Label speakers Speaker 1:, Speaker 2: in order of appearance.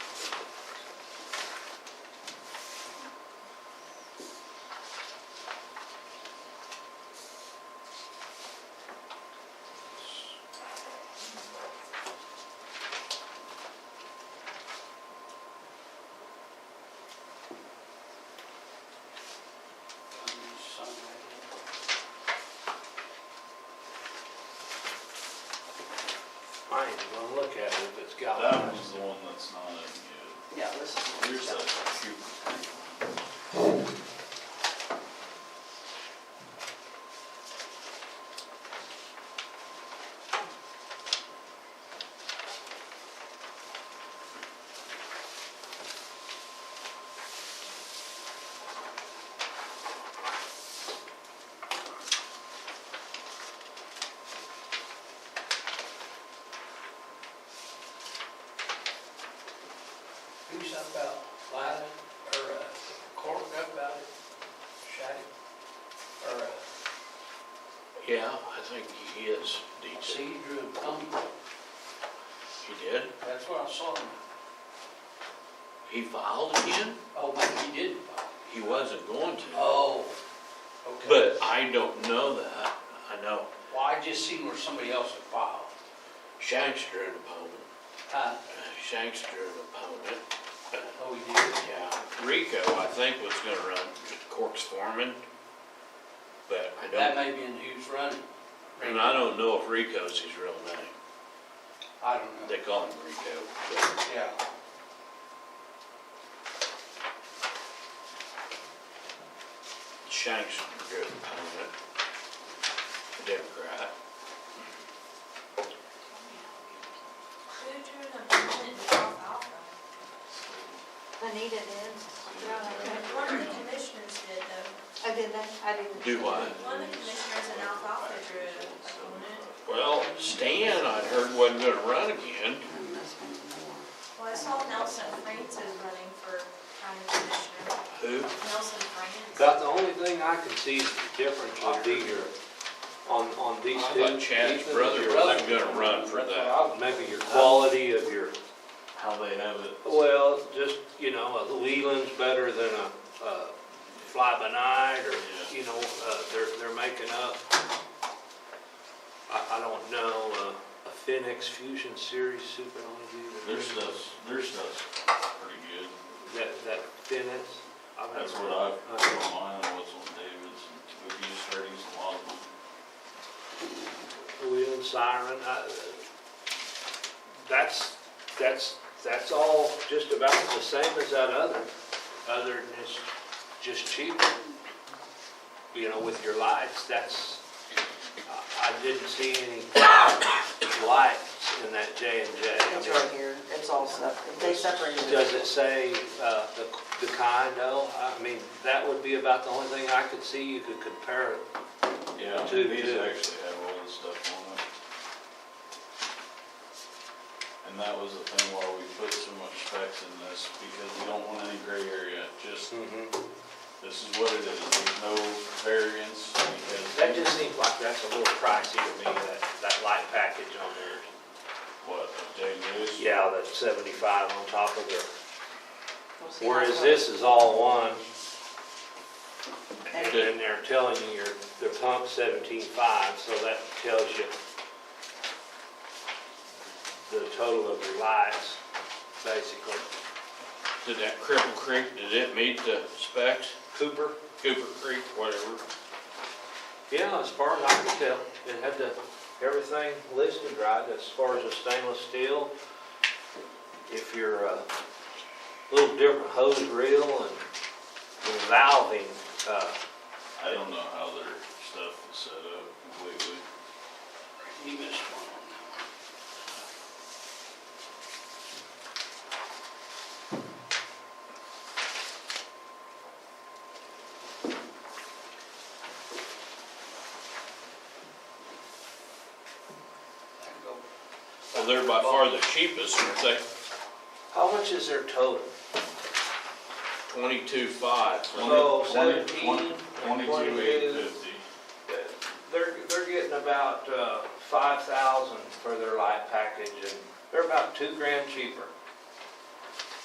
Speaker 1: ain't even gonna look at it if it's
Speaker 2: That
Speaker 1: galvanized.
Speaker 2: one's the one that's not in yet.
Speaker 3: Yeah, this is. what
Speaker 2: Here's
Speaker 3: it's
Speaker 2: that
Speaker 3: got.
Speaker 2: Cuba Creek one.
Speaker 1: Do something about lighting or, uh, cork up about it, shut it, or, uh,
Speaker 4: Yeah, I think he is decent.
Speaker 1: see, drew a thumb,
Speaker 4: He did.
Speaker 1: that's what I saw. him.
Speaker 4: He filed again.
Speaker 1: Oh, maybe he didn't.
Speaker 4: He wasn't going to.
Speaker 1: Oh, okay.
Speaker 4: But I don't know that. I know
Speaker 1: Well, I just seen where somebody else had filed.
Speaker 4: Shankster an opponent,
Speaker 1: Huh?
Speaker 4: uh, Shankster an opponent.
Speaker 1: Oh, he did?
Speaker 4: Yeah, Rico, I think, was gonna run Cork's foreman. But I
Speaker 1: That
Speaker 4: don't,
Speaker 1: may be in who's running.
Speaker 4: and I don't know if Rico's his real name.
Speaker 1: I don't know.
Speaker 4: They call him Rico. but-
Speaker 1: Yeah.
Speaker 4: Shanks is a good opponent, a Democrat.
Speaker 5: Who drew the permanent alfalfa?
Speaker 6: Anita did.
Speaker 5: One of the commissioners did though.
Speaker 6: I did that, I didn't.
Speaker 4: Do I?
Speaker 5: One of the commissioners in alfalfa drew a opponent.
Speaker 4: Well, Stan, I'd heard wasn't gonna run again.
Speaker 5: Well, I saw Nelson France is running for county commissioner.
Speaker 4: Who?
Speaker 5: Nelson France.
Speaker 1: About the only thing I can see is the difference on these are, on, on these
Speaker 4: I
Speaker 1: two.
Speaker 4: thought Chad's
Speaker 1: Ethan,
Speaker 4: brother
Speaker 1: your
Speaker 4: wasn't gonna run for
Speaker 1: That's what
Speaker 4: that.
Speaker 1: I- Maybe your quality of your,
Speaker 2: How they have it.
Speaker 1: well, just, you know, a Leland's better than a, a fly by night or, you know, uh, they're, they're making up. I, I don't know, uh, a Phoenix Fusion Series Super Only.
Speaker 2: Their stuff's, their stuff's pretty good.
Speaker 1: That, that Phoenix. I've
Speaker 2: That's
Speaker 1: never-
Speaker 2: what I've
Speaker 1: Uh,
Speaker 2: put mine on, what's on David's, and we've used thirties a lot of them.
Speaker 1: wheel and siren, I- that's, that's, that's all just about the same as that other, other than it's just cheaper. You know, with your lights, that's, I I didn't see any lights in that J and
Speaker 3: It's right
Speaker 1: J.
Speaker 3: here, it's all separate, they separated it.
Speaker 1: Does it say uh, the the kind though? I mean, that would be about the only thing I could see you could compare it
Speaker 2: Yeah,
Speaker 1: Two,
Speaker 2: these
Speaker 1: two.
Speaker 2: actually have all this stuff on it. And that was the thing why we put so much specs in this, because we don't want any gray area, just, this is what it is, there's no variance,
Speaker 1: That
Speaker 2: because
Speaker 1: just seems like that's a little pricey to me, that, that light package on there.
Speaker 2: what, of J and J's?
Speaker 1: Yeah, that seventy-five on top of there.
Speaker 3: We'll see
Speaker 1: Whereas
Speaker 3: how-
Speaker 1: this is all one. And
Speaker 3: And-
Speaker 1: then they're telling you your, their pump seventeen-five, so that tells you the total of your lights, basically.
Speaker 4: Did that Cripple Creek, did it meet the specs?
Speaker 1: Cooper?
Speaker 4: Cooper Creek, whatever.
Speaker 1: Yeah, as far as I can tell, it had the, everything listed right, as far as the stainless steel. If you're a little different hose reel and the valving, uh,
Speaker 2: I don't know how their stuff is set up completely.
Speaker 1: you missed one.
Speaker 4: Well, they're by far the cheapest, aren't they?
Speaker 1: How much is their total?
Speaker 4: Twenty-two five.
Speaker 1: So,
Speaker 2: Twenty-
Speaker 1: 17,
Speaker 2: twenty- Twenty-two, eight fifty.
Speaker 1: They're, they're getting about, uh, five thousand for their light package and they're about two grand cheaper.